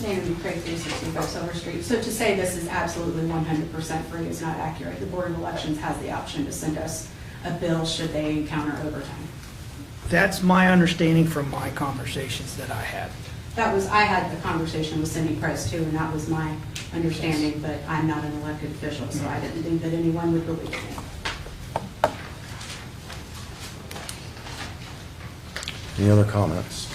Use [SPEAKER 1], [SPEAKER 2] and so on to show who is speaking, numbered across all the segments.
[SPEAKER 1] Naomi Craig, 365 Silver Street. So to say this is absolutely 100% free is not accurate. The Board of Elections has the option to send us a bill should they encounter overtime.
[SPEAKER 2] That's my understanding from my conversations that I had.
[SPEAKER 1] That was, I had the conversation with Cindy Price too, and that was my understanding, but I'm not an elected official, so I didn't think that anyone would believe me.
[SPEAKER 3] Any other comments?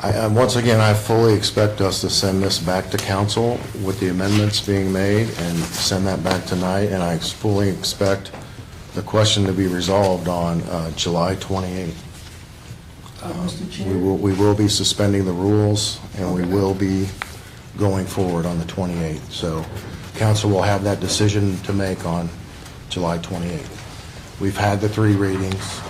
[SPEAKER 3] I, I- once again, I fully expect us to send this back to council with the amendments being made and send that back tonight, and I fully expect the question to be resolved on uh, July 28th.
[SPEAKER 4] Mr.
[SPEAKER 3] We
[SPEAKER 4] Chair,
[SPEAKER 3] will, we will be suspending the rules, and we will be going forward on the 28th. So council will have that decision to make on July 28th. We've had the three readings,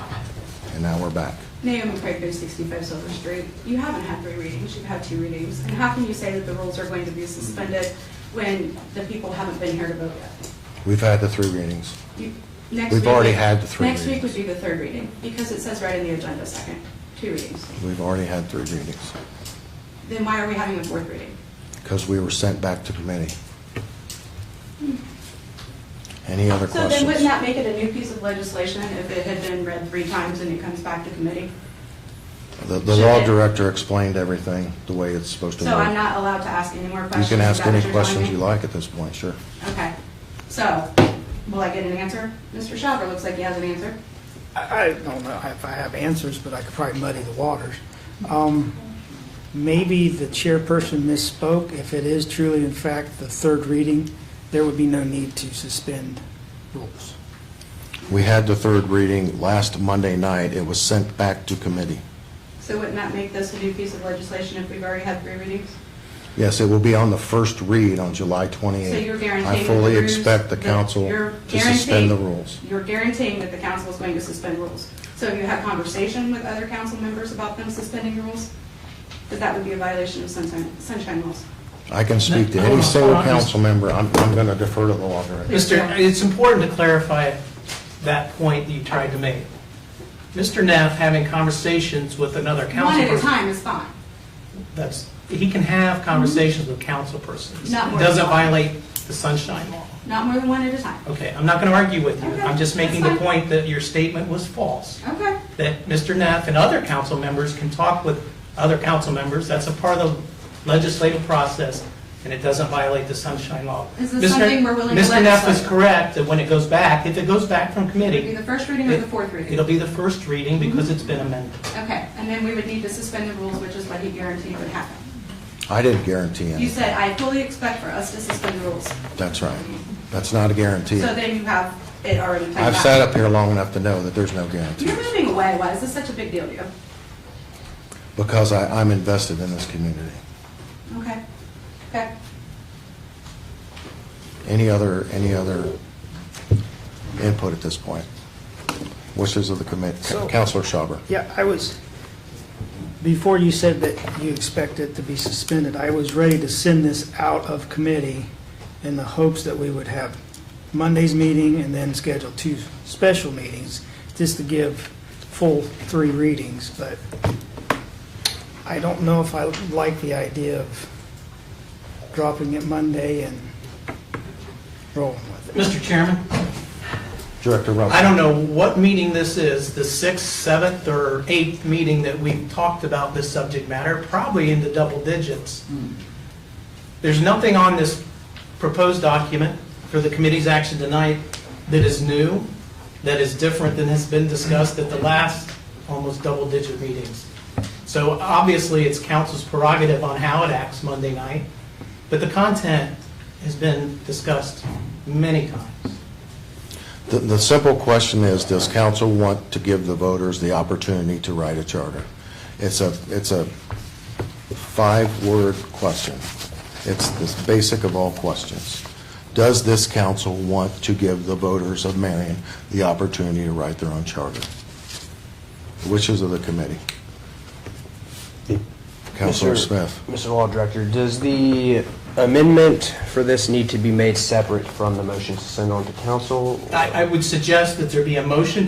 [SPEAKER 3] and now we're back.
[SPEAKER 1] Naomi Craig, 365 Silver Street. You haven't had three readings, you've had two readings. And how can you say that the rules are going to be suspended when the people haven't been here to vote yet?
[SPEAKER 3] We've had the three readings.
[SPEAKER 1] You- next
[SPEAKER 3] We've
[SPEAKER 1] week
[SPEAKER 3] already
[SPEAKER 1] would-
[SPEAKER 3] had the three
[SPEAKER 1] Next week
[SPEAKER 3] readings.
[SPEAKER 1] would be the third reading, because it says right in the agenda, second, two readings.
[SPEAKER 3] We've already had three readings,
[SPEAKER 1] Then why are we having a fourth reading?
[SPEAKER 3] because we were sent back to committee. Any other
[SPEAKER 1] So then wouldn't
[SPEAKER 3] questions?
[SPEAKER 1] that make it a new piece of legislation if it had been read three times and it comes back to committee?
[SPEAKER 3] The, the law director explained everything the way it's supposed to
[SPEAKER 1] So
[SPEAKER 3] work.
[SPEAKER 1] I'm not allowed to ask any more
[SPEAKER 3] You
[SPEAKER 1] questions?
[SPEAKER 3] can
[SPEAKER 1] Is
[SPEAKER 3] ask
[SPEAKER 1] that what
[SPEAKER 3] any
[SPEAKER 1] you're telling
[SPEAKER 3] questions
[SPEAKER 1] me?
[SPEAKER 3] you like at this point, sure.
[SPEAKER 1] Okay, so, will I get an answer? Mr. Shopper looks like he has an answer.
[SPEAKER 2] I I don't know if I have answers, but I could probably muddy the waters. Um, Maybe the chairperson misspoke. If it is truly in fact the third reading, there would be no need to suspend rules.
[SPEAKER 3] We had the third reading last Monday night. It was sent back to committee.
[SPEAKER 1] So wouldn't that make this a new piece of legislation if we've already had three readings?
[SPEAKER 3] Yes, it will be on the first read on July
[SPEAKER 1] So
[SPEAKER 3] 28th.
[SPEAKER 1] you're guaranteeing.
[SPEAKER 3] I
[SPEAKER 1] that
[SPEAKER 3] fully
[SPEAKER 1] the rules-
[SPEAKER 3] expect the
[SPEAKER 1] that
[SPEAKER 3] council
[SPEAKER 1] you're
[SPEAKER 3] to suspend the
[SPEAKER 1] guaranteeing-
[SPEAKER 3] rules.
[SPEAKER 1] You're guaranteeing that the council is going to suspend rules. So have you had conversation with other council members about them suspending rules? Because that would be a violation of sunshine, sunshine laws.
[SPEAKER 3] I can speak to
[SPEAKER 5] No,
[SPEAKER 3] any
[SPEAKER 5] no,
[SPEAKER 3] single
[SPEAKER 5] no, I'm just-
[SPEAKER 3] council member. I'm, I'm going to defer to the law director.
[SPEAKER 5] Mr., it's important to clarify that point that you tried to make. Mr. Neff having conversations with another
[SPEAKER 1] One
[SPEAKER 5] council
[SPEAKER 1] at a
[SPEAKER 5] person.
[SPEAKER 1] time is fine.
[SPEAKER 5] That's, he can have conversations with council persons.
[SPEAKER 1] Not more
[SPEAKER 5] It Doesn't
[SPEAKER 1] than one.
[SPEAKER 5] violate the sunshine law.
[SPEAKER 1] Not more than one at a time.
[SPEAKER 5] Okay, I'm not going to argue with you.
[SPEAKER 1] Okay,
[SPEAKER 5] I'm just making the
[SPEAKER 1] that's fine.
[SPEAKER 5] point that your statement was false.
[SPEAKER 1] Okay.
[SPEAKER 5] That Mr. Neff and other council members can talk with other council members. That's a part of the legislative process, and it doesn't violate the sunshine law.
[SPEAKER 1] Is this
[SPEAKER 5] Mr.
[SPEAKER 1] something we're willing to
[SPEAKER 5] Mr. Neff is
[SPEAKER 1] legislate?
[SPEAKER 5] correct that when it goes back, if it goes back from
[SPEAKER 1] It'd be
[SPEAKER 5] committee,
[SPEAKER 1] the first reading or the fourth reading?
[SPEAKER 5] It'll be the first reading because it's been amended.
[SPEAKER 1] Okay, and then we would need to suspend the rules, which is what he guaranteed would happen.
[SPEAKER 3] I didn't guarantee
[SPEAKER 1] You
[SPEAKER 3] anything.
[SPEAKER 1] said, "I fully expect for us to suspend the rules."
[SPEAKER 3] That's right. That's not a guarantee.
[SPEAKER 1] So then you have it already planned out.
[SPEAKER 3] I've sat up here long enough to know that there's no guarantee
[SPEAKER 1] You're moving away, why is this such a big deal to you?
[SPEAKER 3] because I, I'm invested in this community.
[SPEAKER 1] Okay, okay.
[SPEAKER 3] Any other, any other input at this point? Wishes of the committee.
[SPEAKER 2] So-
[SPEAKER 3] Counselor Schauber.
[SPEAKER 2] Yeah, I was, before you said that you expect it to be suspended, I was ready to send this out of committee in the hopes that we would have Monday's meeting and then schedule two special meetings, just to give full three readings, but I don't know if I like the idea of dropping it Monday and rolling with it.
[SPEAKER 5] Mr. Chairman,
[SPEAKER 3] Director Rumpf.
[SPEAKER 5] I don't know what meeting this is, the sixth, seventh, or eighth meeting that we've talked about this subject matter, probably in the double digits. There's nothing on this proposed document for the committee's action tonight that is new, that is different than has been discussed at the last almost double-digit meetings. So obviously, it's council's prerogative on how it acts Monday night, but the content has been discussed many times.
[SPEAKER 3] The, the simple question is, does council want to give the voters the opportunity to write a charter? It's a, it's a five-word question. It's the basic of all questions. Does this council want to give the voters of Marion the opportunity to write their own charter? Wishes of the committee. Counselor
[SPEAKER 6] Mr.
[SPEAKER 3] Smith.
[SPEAKER 6] Mr. Law Director, does the amendment for this need to be made separate from the motion to send on to council? or-
[SPEAKER 5] I, I would suggest that there be a motion